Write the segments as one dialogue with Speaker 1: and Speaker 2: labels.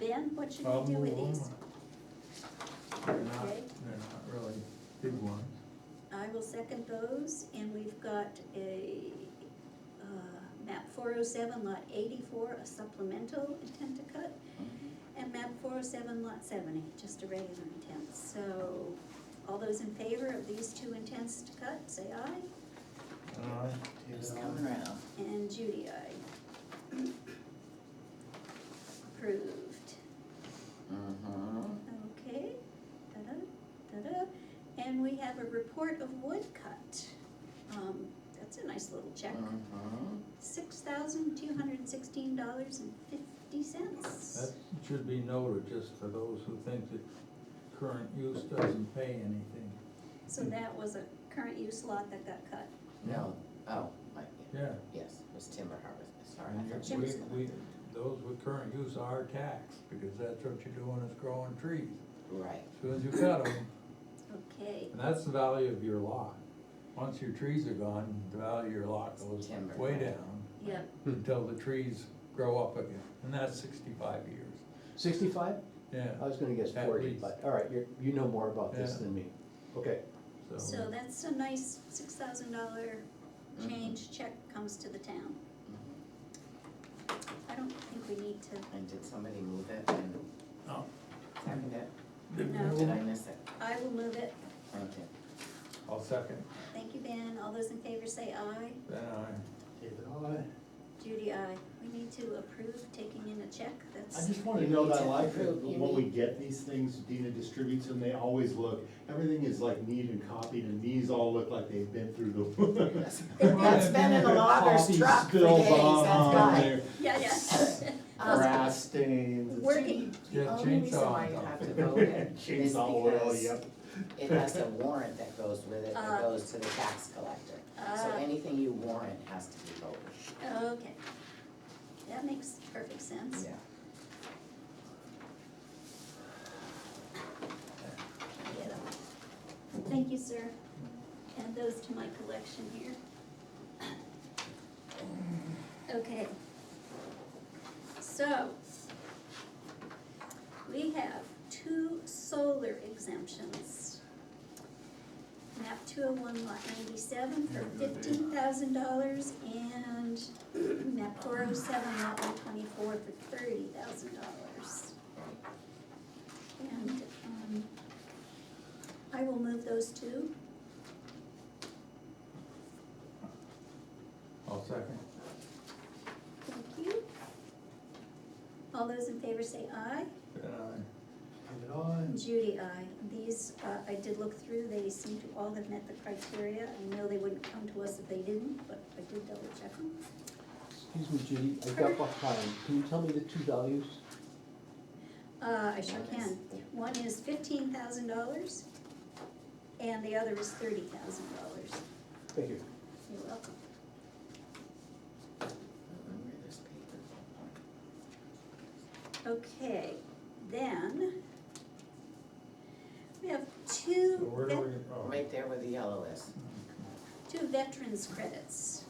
Speaker 1: Ben, what should we do with these?
Speaker 2: They're not,
Speaker 1: Okay.
Speaker 2: they're not really big ones.
Speaker 1: I will second those, and we've got a, uh, map four oh seven lot eighty-four, a supplemental intent to cut, and map four oh seven lot seventy, just a regular intent, so, all those in favor of these two intents to cut, say aye,
Speaker 2: Uh,
Speaker 3: It's coming around.
Speaker 1: and Judy, aye. Approved.
Speaker 3: Mm-hmm.
Speaker 1: Okay, da-da, da-da, and we have a report of woodcut. Um, that's a nice little check,
Speaker 4: Uh-huh.
Speaker 3: Mm-hmm.
Speaker 1: six thousand two hundred and sixteen dollars and fifty cents.
Speaker 2: That should be noted, just for those who think that current use doesn't pay anything.
Speaker 1: So that was a current use lot that got cut.
Speaker 3: No, oh, my,
Speaker 2: Yeah,
Speaker 3: yes, it was timber harvest, sorry, I
Speaker 2: and
Speaker 3: thought
Speaker 2: you-
Speaker 3: you was
Speaker 2: we,
Speaker 3: gonna.
Speaker 2: we, those with current use are taxed, because that's what you're doing is growing trees.
Speaker 3: Right,
Speaker 2: As Soon as you cut them,
Speaker 1: Okay,
Speaker 2: and that's the value of your lot. Once your trees are gone, the value of your lot goes
Speaker 3: Timber.
Speaker 2: way down
Speaker 1: yep,
Speaker 2: until the trees grow up again, and that's sixty-five years.
Speaker 5: Sixty-five? I
Speaker 2: Yeah,
Speaker 5: was gonna guess
Speaker 2: At
Speaker 5: forty,
Speaker 2: least.
Speaker 5: but, all right, you're, you know more about this
Speaker 2: Yeah.
Speaker 5: than me. Okay,
Speaker 1: so that's a nice six thousand dollar
Speaker 4: Mm-hmm.
Speaker 3: Mhm.
Speaker 1: change check comes to the town.
Speaker 3: Mhm.
Speaker 1: I don't think we need to,
Speaker 3: and did somebody move it and
Speaker 2: Oh.
Speaker 3: second it? Did I
Speaker 1: no,
Speaker 3: miss it?
Speaker 1: I will move it.
Speaker 3: Thank you.
Speaker 2: I'll second,
Speaker 1: Thank you, Ben. All those in favor say aye.
Speaker 2: then I.
Speaker 5: David, I,
Speaker 1: Judy, aye. We need to approve taking in a check, that's.
Speaker 4: I just wanna know that I like that
Speaker 3: You
Speaker 4: when we
Speaker 3: need-
Speaker 4: get these things, Dina distributes them, they always look, everything is like neat and copied, and these all look like they've been through the.
Speaker 3: That's been in the logger's
Speaker 4: Coffee
Speaker 3: truck for
Speaker 4: spills
Speaker 3: days, that's
Speaker 4: on
Speaker 3: why. Um,
Speaker 4: there,
Speaker 1: Yeah, yeah.
Speaker 4: Grass stains. it's-
Speaker 1: Working.
Speaker 2: Yeah,
Speaker 3: The only reason
Speaker 2: chainsaw
Speaker 3: why you
Speaker 2: on
Speaker 3: have
Speaker 2: top.
Speaker 3: to
Speaker 4: Oh,
Speaker 3: vote it is
Speaker 4: Chainsaw oil,
Speaker 3: because
Speaker 4: yep.
Speaker 3: it has a warrant that goes with it,
Speaker 1: Ah.
Speaker 3: that goes to the tax collector. So
Speaker 1: Ah.
Speaker 3: anything you warrant has to be voted,
Speaker 1: Uh, Okay. That makes perfect sense.
Speaker 3: yeah.
Speaker 1: Get 'em. Thank you, sir. Add those to my collection here. Okay. So, we have two solar exemptions. Map two oh one lot ninety-seven for fifteen thousand dollars and map four oh seven lot one twenty-four for thirty thousand dollars. And, um, I will move those two.
Speaker 2: I'll second.
Speaker 1: Thank you. All those in favor say aye.
Speaker 2: Then I,
Speaker 5: David, I.
Speaker 1: Judy, aye. These, uh, I did look through, they seem to all have met the criteria. I know they wouldn't come to us if they didn't, but I did double check them.
Speaker 5: Excuse me, Judy, I got behind, can you tell me the two values?
Speaker 1: Uh, I sure
Speaker 3: One is-
Speaker 1: can. One is fifteen thousand dollars and the other is thirty thousand dollars.
Speaker 5: Thank you.
Speaker 6: Uh,
Speaker 1: You're welcome.
Speaker 3: Remember this paper?
Speaker 1: Okay, then we have two.
Speaker 2: so where do
Speaker 1: vet-
Speaker 2: we, oh.
Speaker 3: Right there where the yellow is.
Speaker 1: two veterans credits.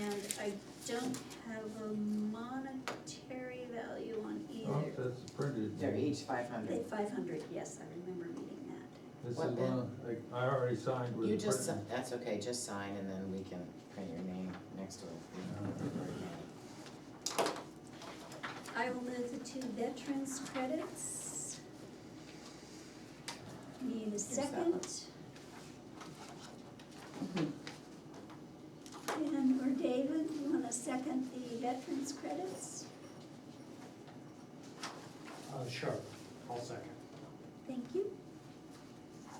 Speaker 1: And I don't have a monetary value on
Speaker 2: Oh,
Speaker 1: either.
Speaker 2: that's printed.
Speaker 3: They're each five
Speaker 1: They
Speaker 3: hundred.
Speaker 1: five hundred, yes, I remember reading that.
Speaker 2: This is
Speaker 3: What
Speaker 2: one, of- like, I already signed with.
Speaker 3: You
Speaker 2: the
Speaker 3: just, si-
Speaker 2: printed.
Speaker 3: that's okay, just sign and then we can print your name next to it.
Speaker 1: I will move the two veterans credits. Need a
Speaker 3: that
Speaker 1: second.
Speaker 3: one.
Speaker 1: And or David, you wanna second the veterans credits?
Speaker 6: Uh, sure, I'll second.
Speaker 1: Thank you.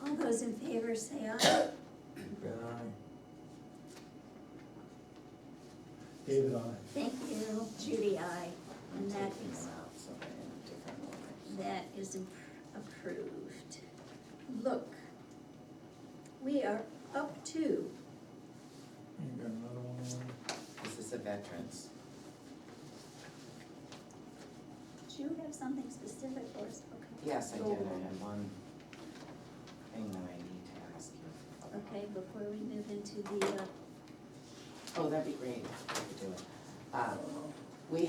Speaker 1: All those in favor say aye.
Speaker 2: Then I.
Speaker 4: David, I.
Speaker 1: Thank you, Judy, aye.
Speaker 3: I'm
Speaker 1: And that
Speaker 3: taking
Speaker 1: is
Speaker 3: them out, so they're in a different order.
Speaker 1: That is imp- approved. Look, we are up to,
Speaker 2: You got another one? Lauren?
Speaker 3: This is the veterans.
Speaker 1: do you have something specific for us? Okay.
Speaker 3: Yes, I did, I
Speaker 1: Go on.
Speaker 3: had one thing that I need to ask you. about.
Speaker 1: Okay, before we move into the, uh,
Speaker 3: Oh, that'd be great, if you could do it. Uh,